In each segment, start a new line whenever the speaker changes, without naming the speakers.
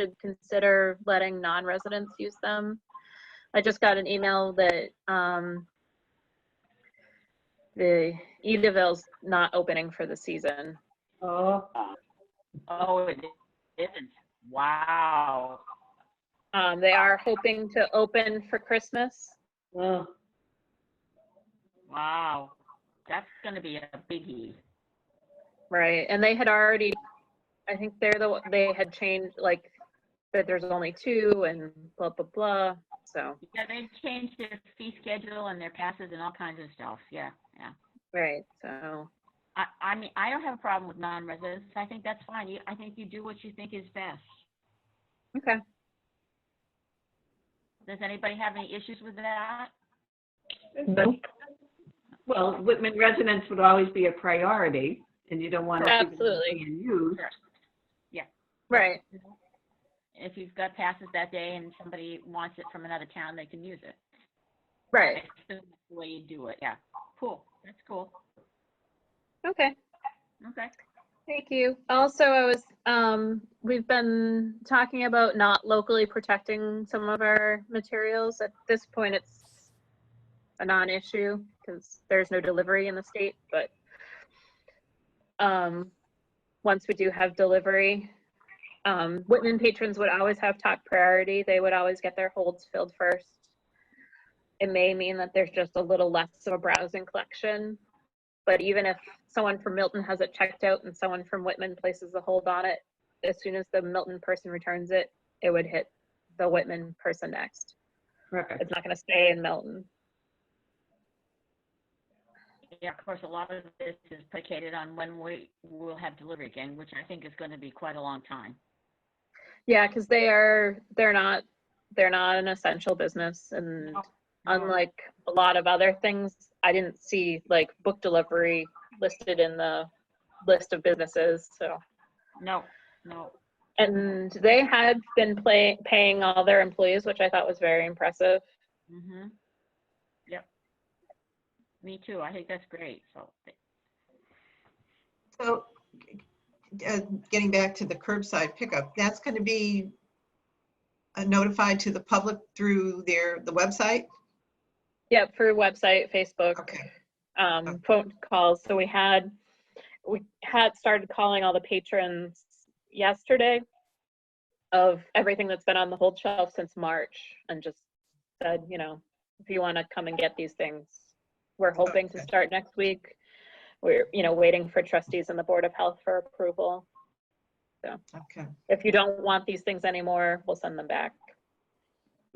should consider letting non-residents use them. I just got an email that um, the Edaville's not opening for the season.
Oh,
Oh, it isn't. Wow.
Um, They are hoping to open for Christmas.
oh,
Wow. That's going to be a biggie.
Right, and they had already, I think they're the, one- they had changed, like, that there's only two and blah, blah, blah, so,
Yeah, they changed their fee schedule and their passes and all kinds of stuff. Yeah, yeah.
right, so,
I, I mean, I don't have a problem with non-residents. I think that's fine. You, I think you do what you think is best.
okay.
Does anybody have any issues with that?
nope. Well, Whitman residents would always be a priority, and you don't want to.
Absolutely.
And use.
Right,
If you've got passes that day and somebody wants it from another town, they can use it. I
right,
assume that's the way you do it. Yeah. Cool. That's cool.
okay,
Okay.
thank you. Also, I was, um, we've been talking about not locally protecting some of our materials. At this point, it's a non-issue, because there's no delivery in the state, but, um, once we do have delivery. Um, Whitman patrons would always have top priority. They would always get their holds filled first. It may mean that there's just a little less of a browsing collection. But even if someone from Milton has it checked out and someone from Whitman places a hold on it, as soon as the Milton person returns it, it would hit the Whitman person next.
Perfect.
It's not gonna stay in Milton.
Yeah, of course, a lot of this is predicated on when we will have delivery again, which I think is going to be quite a long time.
Yeah, because they are, they're not, they're not an essential business and unlike a lot of other things, I didn't see like book delivery listed in the list of businesses, so.
No, no.
And they had been play, paying all their employees, which I thought was very impressive.
hmm Yep. Me too. I think that's great. So,
So, uh, getting back to the curbside pickup, that's going to be uh, notified to the public through their, the website?
Yep, through website, Facebook.
Okay,
um,
Okay.
phone calls. So we had, we had started calling all the patrons yesterday of everything that's been on the hold shelf since March and just said, you know, if you want to come and get these things, we're hoping to
Okay.
start next week. We're, you know, waiting for trustees and the Board of Health for approval.
okay.
If you don't want these things anymore, we'll send them back.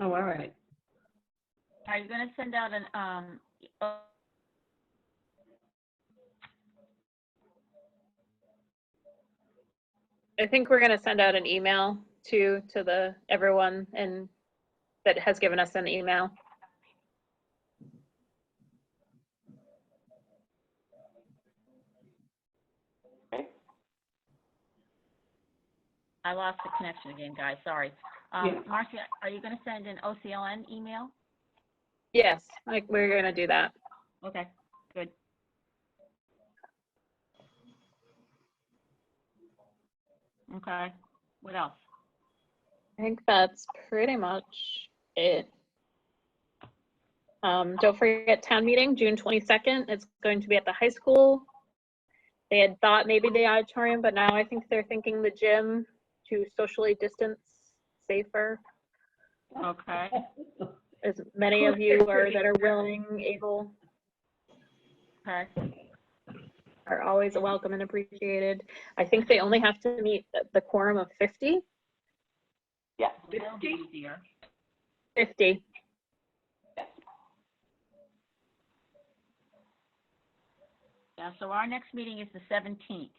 Oh, all right.
are you going to send out an um? uh,
I think we're gonna send out an email to, to the, everyone and that has given us an email.
I lost the connection again, guys. Sorry.
Yeah.
Um, Marcia, are you going to send an OCLN email?
Yes, like, we're gonna do that.
Okay. Good. Okay. What else?
I think that's pretty much it. Um, don't forget town meeting, June twenty-second. It's going to be at the high school. They had thought maybe the auditorium, but now I think they're thinking the gym to socially distance safer.
Okay.
As many of you are that are willing, able,
Okay.
are always welcome and appreciated. I think they only have to meet the- the quorum of 50.
Yeah,
That'll be easier.
50.
Yeah, so our next meeting is the seventeenth.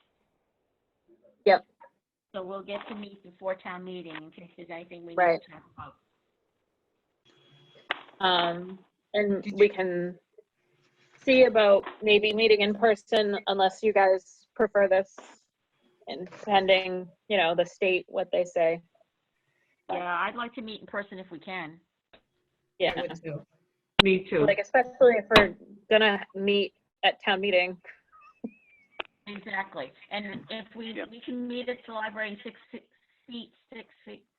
Yep.
So we'll get to meet before town meeting in case there's anything we need
Right.
to talk about.
Um, and
Did
we can see about maybe meeting in person unless you guys prefer this and pending, you know, the state, what they say.
Yeah, I'd like to meet in person if we can.
Yeah.
I would too.
Me too.
Like especially if we're gonna meet at town meeting.
Exactly. And if we,
Yep.
we can meet at the library in six, six feet, six feet,